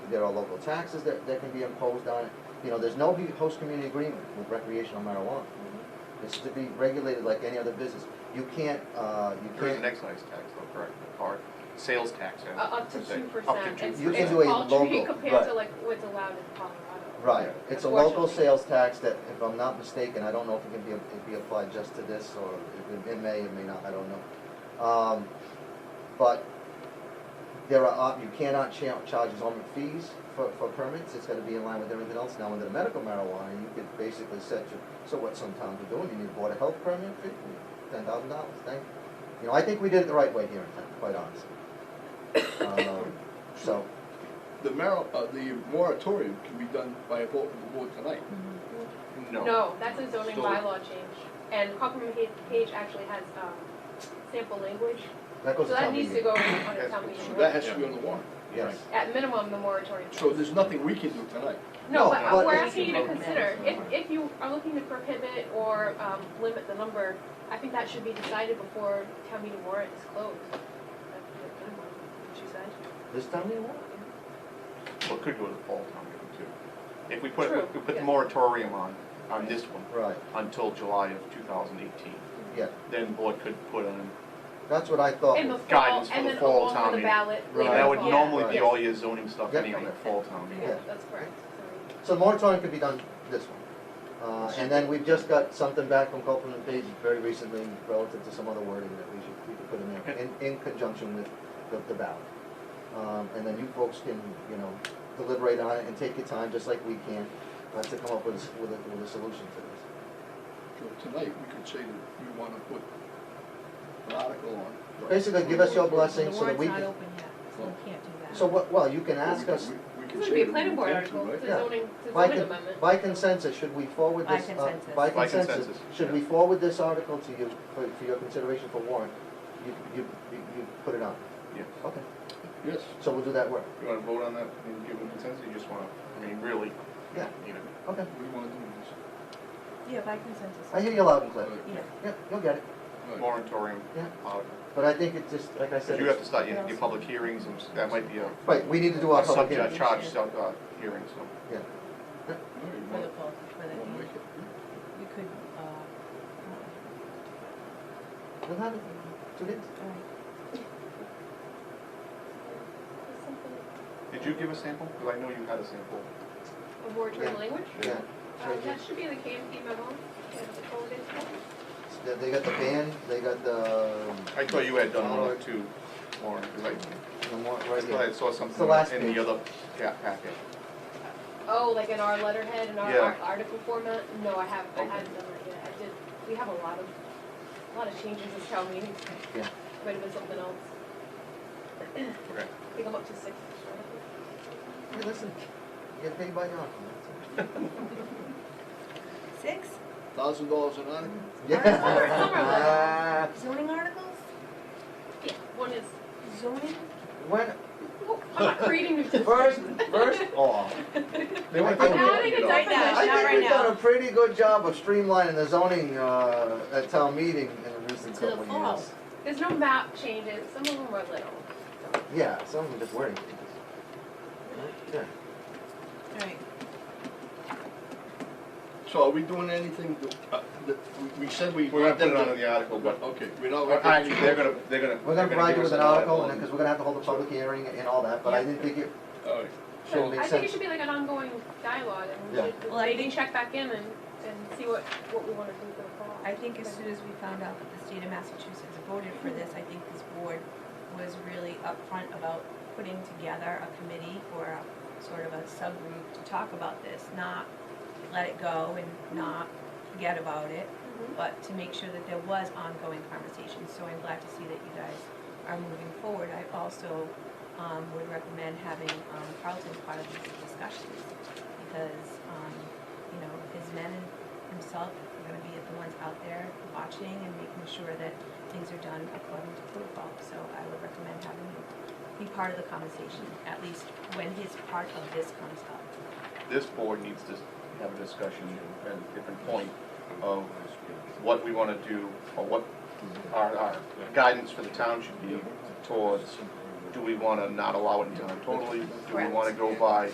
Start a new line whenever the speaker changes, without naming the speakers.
there are local taxes that, that can be imposed on it. You know, there's no hu- host community agreement with recreational marijuana. It's to be regulated like any other business. You can't, uh, you
There is an
can't,
excise tax, though, correct, the car, sales tax. I
Uh, Up to
should say.
two
Up
percent.
to
It's,
two
You can
it's
percent.
do a
paltry
local,
compared to
right.
like what's allowed in Colorado.
right. It's a local
Unfortunately.
sales tax that, if I'm not mistaken, I don't know if it can be, it be applied just to this, or if it it may, it may not, I don't know. Um, But there are, op- you cannot cha- charge zoning fees for, for permits, it's gotta be in line with everything else. Now, under the medical marijuana, you could basically set your, so what some towns are doing, you need a board of health permit, ten thousand dollars, thank you. You know, I think we did it the right way here in town, quite honestly. Um, So,
The mar, uh, the moratorium can be done by a vote of the board tonight.
No, that's a zoning
So-
bylaw change, and Cochran Page- Page actually has, um, sample language,
that
so
goes to
that
town
needs to
meeting.
go on a
That's-
town
So
meeting.
that has to be on the warrant.
Yes.
At minimum, the moratorium.
So there's nothing we can do tonight.
No,
No, but uh,
but-
we're asking you to consider, if,
Yeah.
if you are looking to prohibit or, um, limit the number, I think that should be decided before town meeting warrant is closed. That's the minimum, she said.
This town meeting warrant?
Well, it could go to the fall town meeting too. If we put,
True,
we put the
yeah.
moratorium on, on this one,
Right,
until July of two thousand eighteen,
yeah,
then the board could put on,
that's what I thought.
In the fall,
Guidance for
and
the
then
fall
along
town
with the
meeting.
ballot
Right.
later.
that would
in the fall.
normally be
Yes.
all your zoning stuff, any on
Right.
that fall town meeting.
Yeah,
Yeah.
that's correct.
So the moratorium could be done this one. Uh, and then we've just got something back from Copeland and Page very recently relative to some other wording that we should, we could put in there, in, in conjunction with the, the ballot. Um, and then you folks can, you know, deliberate on it and take your time, just like we can, uh, to come up with, a- with a, with a solution to this.
So tonight, we could say that we want to put an article on.
Basically, give us your blessing so that we
The warrant's
can,
not open yet, so we can't do that.
so what, well, you can
Well, we
ask
could-
us,
we- we could
It's gonna
say
be a
that we
planning board
intend to,
article,
right?
it's a
Yeah.
zoning, it's a
By
zoning
con-
amendment.
By consensus, should we forward
By
this? uh,
consensus.
By
By
consensus,
consensus,
should
yeah.
we forward this article to you, for, for your consideration for warrant? You, you, you you put it on?
Yeah.
Okay,
Yes.
so we'll do that work,
You wanna vote on that and give a consensus, you just wanna, I mean, really,
yeah,
you know,
okay.
We want to do this.
Yeah, by consensus.
I hear you loud and clear,
Right,
Yeah.
yeah, you'll get it,
right.
moratorium.
Yeah.
uh,
but I think it's just, like I said,
You have to
it's-
start your, your public hearings, and that might be a,
right, we need to do our
a
public
subject
hearing.
charge, sub- uh, hearing, so.
All right,
For the
well,
fall, for the,
we'll make
you
it.
could, uh,
We'll have it, two days.
all right.
There's something-
Did you give a sample? Because I know you had a sample.
A moratorium
Yeah.
language?
yeah.
Um, that should be in the KMP memo, and the folded stuff.
They- They got the band, they got the, um,
I thought you had done one or two more, because
the more,
I, I
right
thought
here.
I saw something
last
in
page.
the other pa- packet.
Oh, like in our letterhead, in our
Yeah.
ar- article format? No, I haven't, I
Okay.
haven't done that yet. I did, we have a lot of, a lot of changes this town meeting.
Yeah.
Might have been something else.
Okay.
I think I'm up to six. right?
Hey, listen, you get paid by the hour.
Six
Thousand dollars an article?
Yeah.
zoning articles,
Yeah, one is,
zoning,
When,
oh, I'm not creating new.
First, first off,
They
went
went
I think
over
over we- it,
you know. Right now,
I
not
think
right
we've done
now.
a pretty good job of streamlining the zoning, uh, at town meeting in the recent
To the
couple
fall.
years.
There's no map changes, some of them are little.
Yeah, some of them just wording. Yeah.
all right.
So are we doing anything, to- uh, that, we- we said we.
We're gonna
want
put it
them
on
to-
in the article, but,
Okay, we're not.
or actually, they're gonna, they're gonna.
We're gonna
they're
provide you
give
with
us
an
a-
article, and then, cause we're gonna have to hold a public hearing and all that, but I
Yeah.
didn't think it,
All right,
So-
I think it should be like an ongoing dialogue, and
Yeah.
we should
Well, I
maybe
think-
check back in and, and see what, what we wanna do for the fall.
I think as soon as we found out that the state of Massachusetts voted for this, I think this board was really upfront about putting together a committee or a sort of a subgroup to talk about this, not let it go and not forget about it,
Mhm.
but to make sure that there was ongoing conversation. So I'm glad to see that you guys are moving forward. I also um, would recommend having um, Carlton part of these discussions because, um, you know, his men and himself are going to be the ones out there watching and making sure that things are done according to protocol. So I would recommend having him be part of the conversation, at least when his part of this comes up.
This board needs to have a discussion at a different point of what we wanna do, or what our, our guidance for the town should be towards do we wanna not allow it in town totally? Do we wanna
Correct.
go by